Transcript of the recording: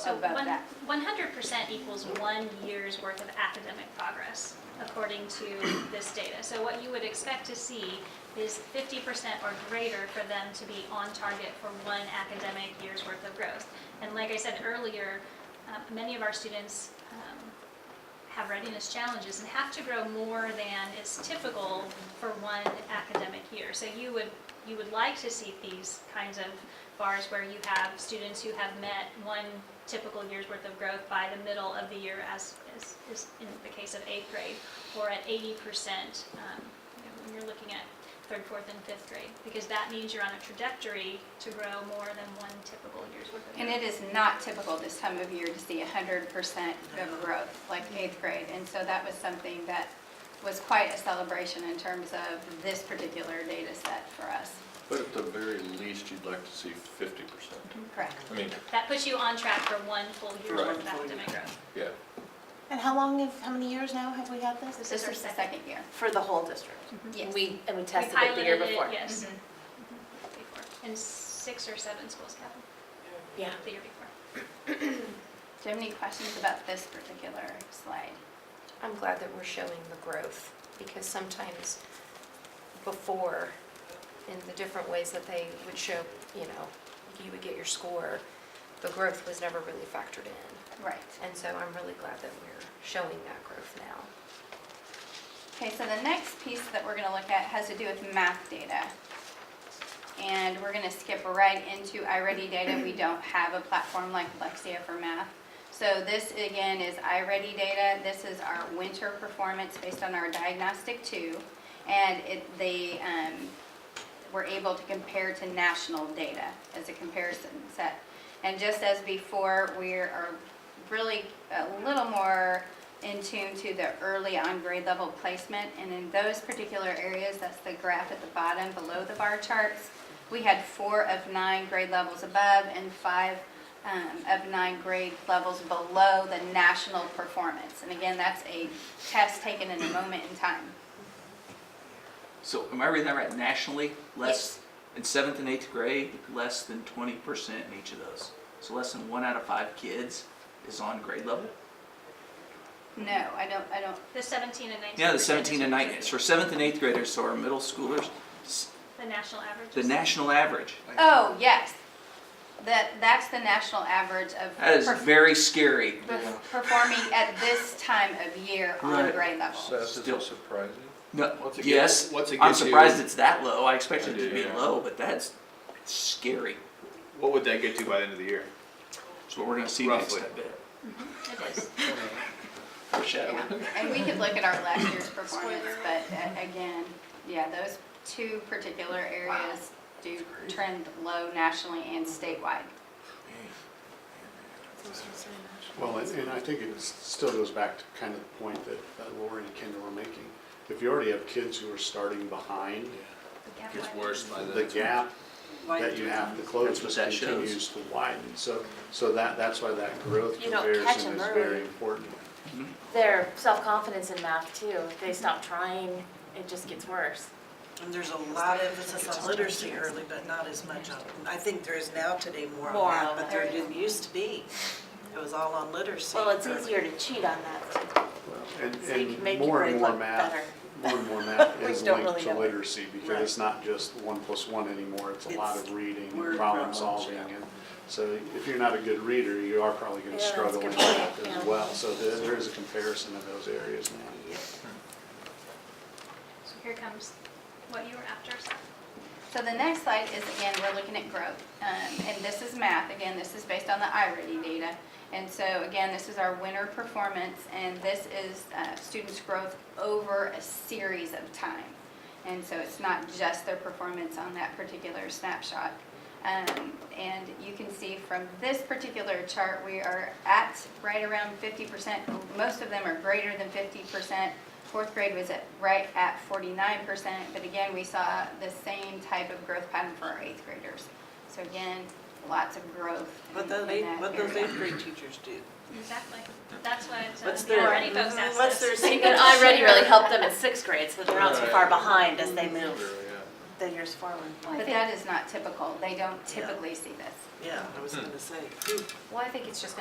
So about one- that. 100% equals one year's worth of academic progress, according to this data. So what you would expect to see is 50% or greater for them to be on target for one academic year's worth of growth. And like I said earlier, um, many of our students um, have readiness challenges and have to grow more than is typical for one academic year. So you would, you would like to see these kinds of bars where you have students who have met one typical year's worth of growth by the middle of the year as is, is in the case of eighth grade, or at eighty percent, um, you know, when you're looking at third, fourth, and fifth grade, because that means you're on a trajectory to grow more than one typical year's worth of growth. And it is not typical this time of year to see 100% of growth, like eighth grade. And so that was something that was quite a celebration in terms of this particular data set for us. But at the very least, you'd like to see fifty percent. Correct. I mean, That puts you on track for one full year's Right. worth of academic growth. yeah. And how long have, how many years now have we had this? This This our is the second year. For the whole district? Yes. We, and We we tested it the year piloted it, before? Mm-hmm. Yes. Mhm. Before. In six or seven schools, Kevin, Yeah. the year before. Do you have any questions about this particular slide? I'm glad that we're showing the growth, because sometimes before, in the different ways that they would show, you know, you would get your score, the growth was never really factored in. Right. And so I'm really glad that we're showing that growth now. Okay, so the next piece that we're gonna look at has to do with math data. And we're gonna skip right into iReady data. We don't have a platform like Lexia for math. So this, again, is iReady data. This is our winter performance based on our diagnostic two. And it, they, um, we're able to compare to national data as a comparison set. And just as before, we are really a little more in tune to the early on grade level placement. And in those particular areas, that's the graph at the bottom below the bar charts, we had four of nine grade levels above and five um, of nine grade levels below the national performance. And again, that's a test taken in a moment in time. So am I reading that right? Nationally, less in seventh and eighth grade, less than twenty percent in each of those. So less than one out of five kids is on grade level. No, I don't, I don't The 17 and 19. Yeah, the seventeen and nineteen. For seventh and eighth graders, so our middle schoolers, s- The national average. the is- national average. Oh, yes. That, that's the national average of. That is perf- very scary. perf- Performing at this time of year on Right. grade level. Seth, is Still- it surprising? No, Once it yes, gets- once it I'm gets you- surprised it's that low. I expected it to be Yeah. low, but that's it's scary. What would that get to by the end of the year? That's what we're gonna see Roughly. next. I bet. It is. Foreshadowing. Yeah. And we could look at our last year's performance, but uh, again, yeah, those two particular areas do trend low nationally and statewide. Well, and and I think it s- still goes back to kind of the point that that Lori and Kendall were making. If you already have kids who are starting behind, We have Gets one. worse by the gap that you have to That's close what just that shows. continues to widen. So, so that, that's why that growth You don't catch comparison them is early. very important. Their self-confidence in math too, if they stop trying, it just gets worse. And there's a lot of emphasis on literacy early, but not as much on, I think there is now today more More on that, on but that. there didn't used to be. It was all on literacy. Well, it's early. easier to cheat on that too. Well, And, So you can and make more your and grade more look math, better. more and more math We is don't linked really to know. literacy because Right. it's not just one plus one anymore. It's a lot of reading, word and problem problems, solving. yeah. and So if you're not a good reader, you are probably Yeah, going to that's a struggle good in point, math yeah. as well. So there there is a comparison of those areas now. So here comes what you were after, Seth. So the next slide is, again, we're looking at growth, um, and this is math, again, this is based on the iReady data. And so, again, this is our winter performance, and this is uh, students' growth over a series of time. And so it's not just their performance on that particular snapshot. Um, And you can see from this particular chart, we are at right around 50%. Most of them are greater than 50%. Fourth grade was at, right at 49%, but again, we saw the same type of growth pattern for our eighth graders. So again, lots of growth in What in that those eighth, what those area. eighth grade teachers do. Exactly. That's why it's, uh, What's the their- already folks asked what's this. their- And already really helped them in sixth grade, so they're not too far Right. behind as they move Really, yeah. the years forward. But that is not typical, they don't typically see this. Yeah, I was gonna say. Phew. Well, I think it's just